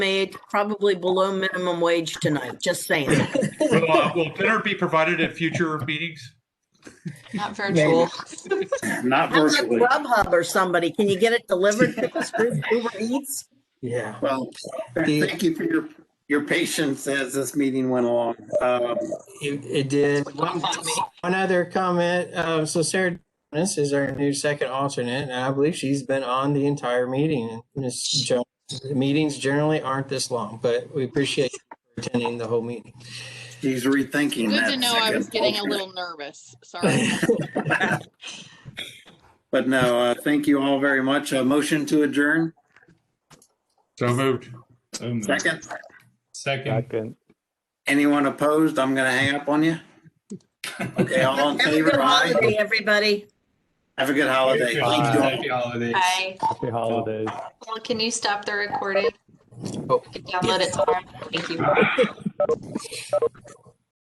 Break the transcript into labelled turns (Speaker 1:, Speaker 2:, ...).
Speaker 1: made probably below minimum wage tonight, just saying.
Speaker 2: Will, uh, will dinner be provided at future meetings?
Speaker 3: Not virtual.
Speaker 4: Not
Speaker 1: I'm like
Speaker 4: virtually.
Speaker 1: Grubhub or somebody, can you get it delivered to us through Uber Eats?
Speaker 5: Yeah.
Speaker 6: Well,
Speaker 5: The-
Speaker 6: thank you for your, your patience as this meeting went along. Um,
Speaker 5: It, it did. One, one other comment, uh, so Sarah Dennis is our new second alternate, and I believe she's been on the entire meeting. Ms. Jones, the meetings generally aren't this long, but we appreciate you attending the whole meeting.
Speaker 6: He's rethinking
Speaker 3: Good
Speaker 6: that.
Speaker 3: to know I
Speaker 6: second
Speaker 3: was getting a
Speaker 6: alternate.
Speaker 3: little nervous. Sorry.
Speaker 6: But no, uh, thank you all very much. A motion to adjourn.
Speaker 2: So moved.
Speaker 7: So moved.
Speaker 6: Second,
Speaker 2: Second.
Speaker 7: Second.
Speaker 6: anyone opposed? I'm going to hang up on you. Okay, all in
Speaker 1: Have a good
Speaker 6: favor? Aye.
Speaker 1: holiday, everybody.
Speaker 6: Have a good holiday. Thank you all.
Speaker 2: Happy holidays.
Speaker 8: Hi.
Speaker 7: Happy holidays.
Speaker 8: Well, can you stop the recording? I
Speaker 5: Oh.
Speaker 8: can download it tomorrow. Thank you.